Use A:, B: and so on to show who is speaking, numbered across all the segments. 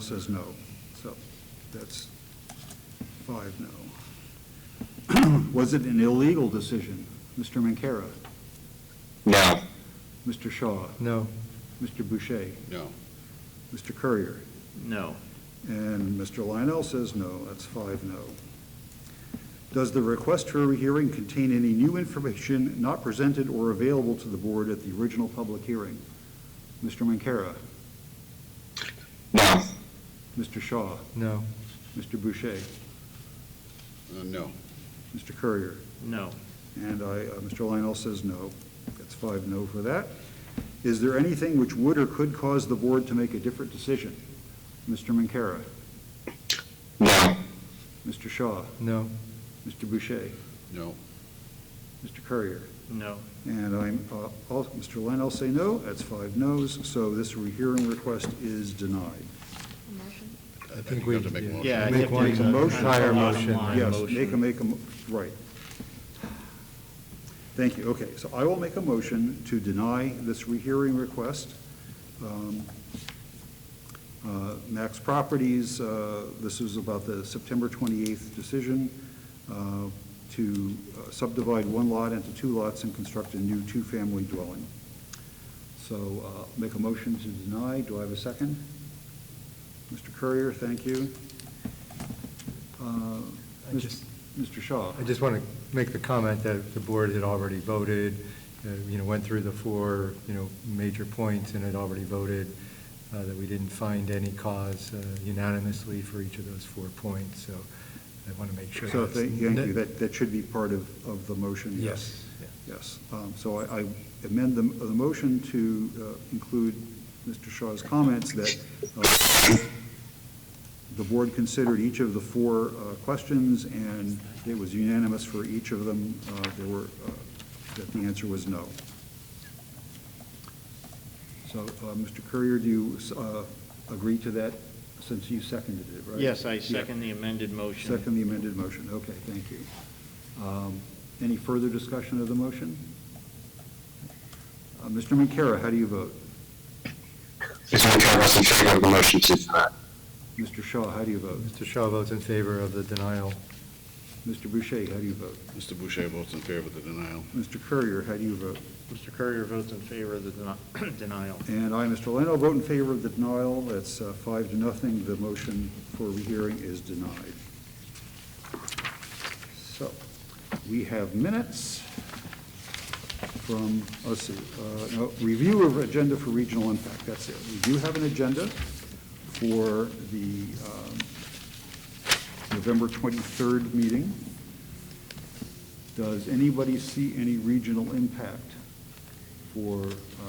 A: says no. So that's five no. Was it an illegal decision? Mr. Mancara?
B: No.
C: Uh,
A: Mr. Shaw?
D: No.
A: Mr. Boucher?
C: No.
A: Mr. Courier?
D: No.
A: And Mr. Lionel says no, that's five no. Does the request for a hearing contain any new information not presented or available to the board at the original public hearing? Mr. Mancara?
B: No.
A: Mr. Shaw?
D: No.
A: Mr. Boucher?
C: Uh, No.
A: Mr. Courier?
D: No.
A: And I, uh, Mr. Lionel says no. That's five no for that. Is there anything which would or could cause the board to make a different decision? Mr. Mancara?
B: No.
A: Mr. Shaw?
D: No.
A: Mr. Boucher?
C: No.
A: Mr. Courier?
D: No.
A: And I'm, uh, all- Mr. Lynn, I'll say no, that's five noes, so this rehearing request is denied.
E: Motion?
C: I think we have to make a motion.
D: Yeah. Make one
A: Make a motion.
D: Higher motion.
A: Yes, make a, make a, mo- right. Thank you, okay, so I will make a motion to deny this rehearing request. Um, uh, Max Properties, uh, this is about the September 28th decision uh, to uh, subdivide one lot into two lots and construct a new two-family dwelling. So uh, make a motion to deny, do I have a second? Mr. Courier, thank you. Uh,
D: I
A: Mr.
D: just-
A: Mr. Shaw?
D: I just want to make the comment that the board had already voted, uh, you know, went through the four, you know, major points and had already voted, uh, that we didn't find any cause uh, unanimously for each of those four points, so I want to make sure.
A: So,
D: that's-
A: thank thank you, that, that should be part of, of the motion, yes.
D: Yes. yeah.
A: Yes, Um, so I I amend the, the motion to uh, include Mr. Shaw's comments that uh, the board considered each of the four uh, questions, and it was unanimous for each of them, Uh, there were, uh, that the answer was no. So, uh, Mr. Courier, do you uh, agree to that, since you seconded it, right?
F: Yes, I
A: Yeah.
F: second the amended motion.
A: Second the amended motion, okay, thank you. Um, Any further discussion of the motion? Uh, Mr. Mancara, how do you vote?
B: Mr. Mancara votes in favor of the motion to deny.
A: Mr. Shaw, how do you vote?
D: Mr. Shaw votes in favor of the denial.
A: Mr. Boucher, how do you vote?
C: Mr. Boucher votes in favor of the denial.
A: Mr. Courier, how do you vote?
F: Mr. Courier votes in favor of the deni- denial.
A: And I, Mr. Leno, vote in favor of the denial. That's uh, five to nothing. The motion for rehearing is denied. So, we have minutes from, let's see, uh, no, review of agenda for regional impact, that's it. We do have an agenda for the um, November 23rd meeting. Does anybody see any regional impact for, uh,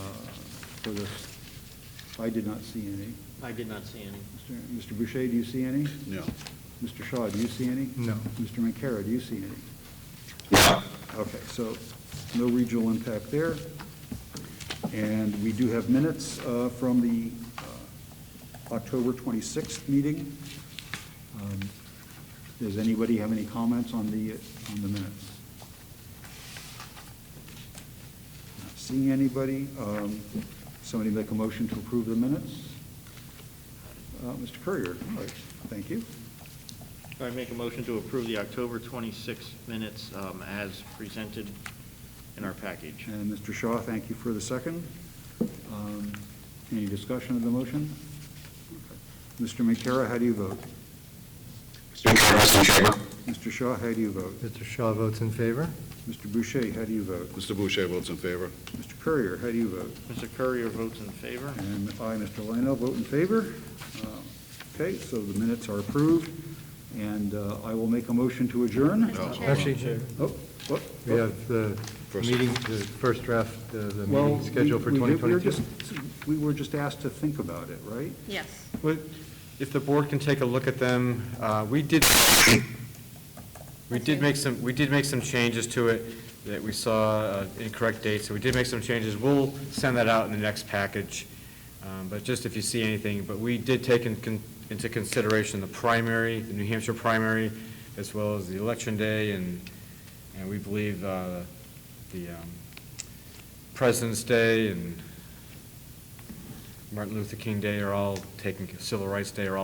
A: for this? I did not see any.
F: I did not see any.
A: Mr. Mr. Boucher, do you see any?
C: No.
A: Mr. Shaw, do you see any?
D: No.
A: Mr. Mancara, do you see any?
B: No.
A: Okay, so no regional impact there. And we do have minutes uh, from the uh, October 26th meeting. Um, Does anybody have any comments on the, on the minutes? Not seeing anybody. Um, Somebody make a motion to approve the minutes? Uh, Mr. Courier, all right, thank you.
F: I make a motion to approve the October 26th minutes um, as presented in our package.
A: And Mr. Shaw, thank you for the second. Um, Any discussion of the motion? Mr. McCara, how do you vote?
B: Mr. Mancara votes in favor.
A: Mr. Shaw, how do you vote?
D: Mr. Shaw votes in favor?
A: Mr. Boucher, how do you vote?
C: Mr. Boucher votes in favor.
A: Mr. Courier, how do you vote?
F: Mr. Courier votes in favor.
A: And I, Mr. Lino, vote in favor. Uh, Okay, so the minutes are approved, and uh, I will make a motion to adjourn.
C: No.
D: Actually,
A: Oh, what?
D: we have the
C: First.
D: meeting, the first draft, the the
A: Well,
D: meeting scheduled for
A: we- we did- we were
D: 2022.
A: just- We were just asked to think about it, right?
E: Yes.
G: Well, If the board can take a look at them, uh, we did, we did make some, we did make some changes to it that we saw uh, incorrect dates, so we did make some changes. We'll send that out in the next package, um, but just if you see anything, but we did take in con- into consideration the primary, the New Hampshire primary, as well as the election day, and, and we believe uh, the um, President's Day and Martin Luther King Day are all taken, Civil Rights Day are all